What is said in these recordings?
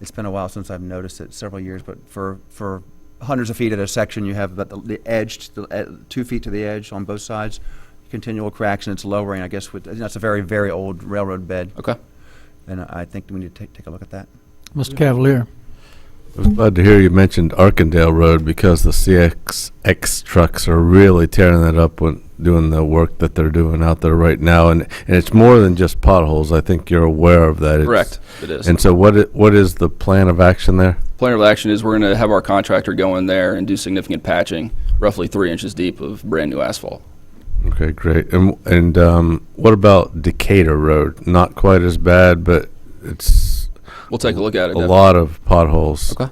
it's been a while since I've noticed it, several years, but for, for hundreds of feet at a section, you have about the- the edge, to the- eh, two feet to the edge on both sides, continual cracks, and it's lowering, I guess, with, that's a very, very old railroad bed, Okay. and I think we need to take, take a look at that. Mr. Cavalier. I was glad to hear you mentioned Arkandale Road because the CXX trucks are really tearing that up when doing the work that they're doing out there right now, and and it's more than just potholes. I think you're aware of that. It's- Correct. It is. And so, what i- what is the plan of action there? Plan of action is we're going to have our contractor go in there and do significant patching, roughly three inches deep of brand new asphalt. Okay, great. And and um, what about Decatur Road? Not quite as bad, but it's We'll take a look at it. a definitely. lot of potholes. Okay.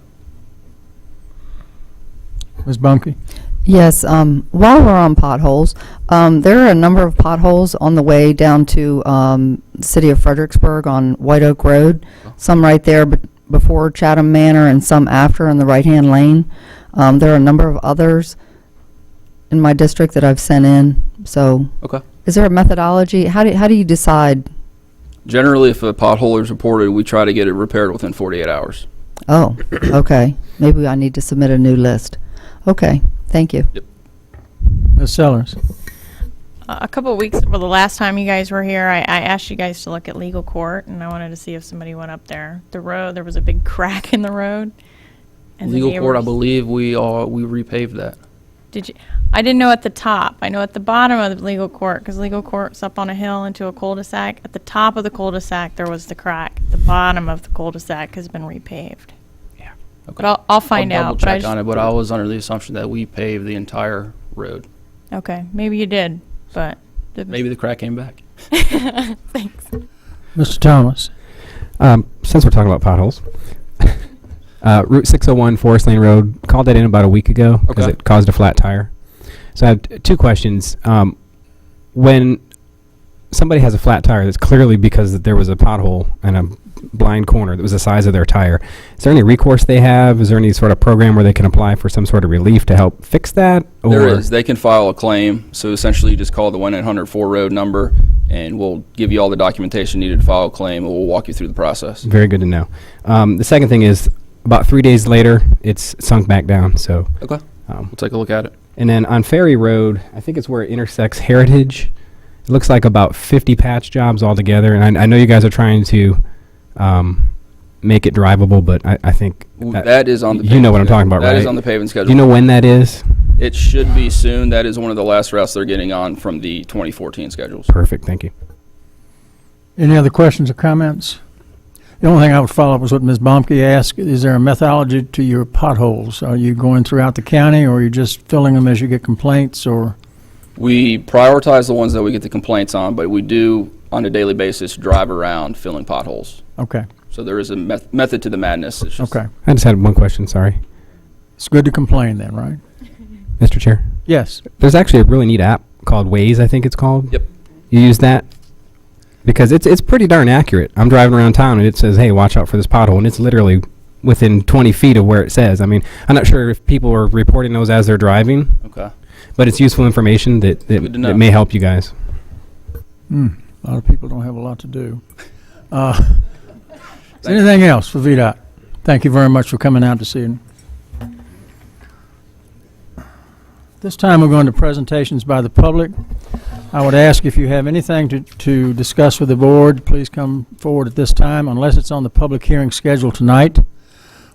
Ms. Bunkie. Yes, um, while we're on potholes, um, there are a number of potholes on the way down to, um, City of Fredericksburg on White Oak Road. Some right there be- before Chatham Manor and some after in the right-hand lane. Um, there are a number of others in my district that I've sent in, so. Okay. Is there a methodology? How do, how do you decide, Generally, if a pothole is reported, we try to get it repaired within 48 hours. oh, okay, maybe I need to submit a new list. Okay, thank you. Ms. Sellers. Uh, A couple of weeks, well, the last time you guys were here, I, I asked you guys to look at legal court, and I wanted to see if somebody went up there. The road, there was a big crack in the road. and the Legal court, I neighbors- believe we all we repaved that. Did you? I didn't know at the top. I know at the bottom of the legal court, because legal court's up on a hill into a cul-de-sac. At the top of the cul-de-sac, there was the crack. The bottom of the cul-de-sac has been repaved. Yeah. But I'll, I'll find I'll out. double but I check just- on it, but I was under the assumption that we paved the entire road. Okay, maybe you did, but. Maybe the crack came back. Thanks. Mr. Thomas. Um, since we're talking about potholes, uh, Route 601 Forest Lane Road called that in about a week ago because Okay. it caused a flat tire. So I have t- two questions. Um, when somebody has a flat tire, that's clearly because that there was a pothole and a blind corner that was the size of their tire. Is there any recourse they have? Is there any sort of program where they can apply for some sort of relief to help fix that? There is. They can file a claim. So essentially, you just call the 1 800 4 road number, and we'll give you all the documentation needed to file a claim, and we'll walk you through the process. Very good to know. Um, the second thing is about three days later, it's sunk back down. So Okay. um, We'll take a look at it. And then on Ferry Road, I think it's where it intersects Heritage. It looks like about 50 patch jobs altogether. And I, I know you guys are trying to um, make it drivable, but I, I think that- that is on the. you paving know what I'm schedule. talking about, That is right? on the paving schedule. do you know when that is? It should be soon. That is one of the last routes they're getting on from the 2014 schedules. Perfect. Thank you. Any other questions or comments? The only thing I would follow up was what Ms. Bomke asked. Is there a methodology to your potholes? Are you going throughout the county or are you just filling them as you get complaints or? We prioritize the ones that we get the complaints on, but we do, on a daily basis, drive around filling potholes. Okay, So there is a meth- method to the madness. It's just- okay. I just had one question. Sorry, It's good to complain then, right? Mr. Chair. Yes. There's actually a really neat app called Waze. I think it's called. Yep. You use that because it's it's pretty darn accurate. I'm driving around town and it says, "Hey, watch out for this pothole," and it's literally within 20 feet of where it says. I mean, I'm not sure if people are reporting those as they're driving. Okay. but it's useful information that, that, Good to know. that may help you guys. Hmm, a lot of people don't have a lot to do. Uh, Is there anything else for VDOT? Thank you very much for coming out this evening. This time, we're going to presentations by the public. I would ask if you have anything to, to discuss with the board, please come forward at this time, unless it's on the public hearing schedule tonight.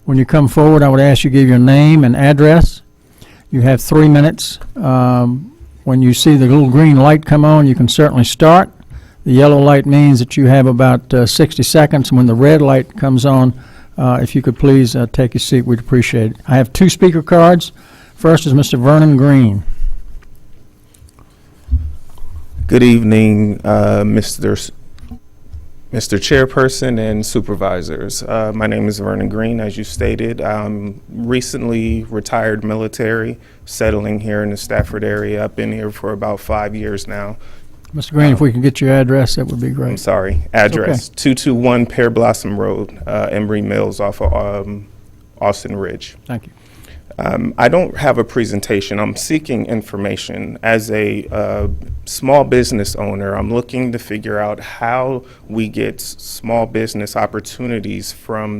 When you come forward, I would ask you give your name and address. You have three minutes. Um, When you see the little green light come on, you can certainly start. The yellow light means that you have about uh, 60 seconds. When the red light comes on, uh, if you could please uh, take your seat, we'd appreciate it. I have two speaker cards. First is Mr. Vernon Green. Good evening, uh, Mr. S- Mr. Chairperson and supervisors. Uh, My name is Vernon Green, as you stated. I'm recently retired military, settling here in the Stafford area. I've been here for about five years now. Mr. Green, if we could get your address, that would be I'm great. sorry, address, 221 Pear Blossom Road, uh, Embry Mills off of um, Austin Ridge. Thank you. Um, I don't have a presentation. I'm seeking information. As a uh, small business owner, I'm looking to figure out how we get s- small business opportunities from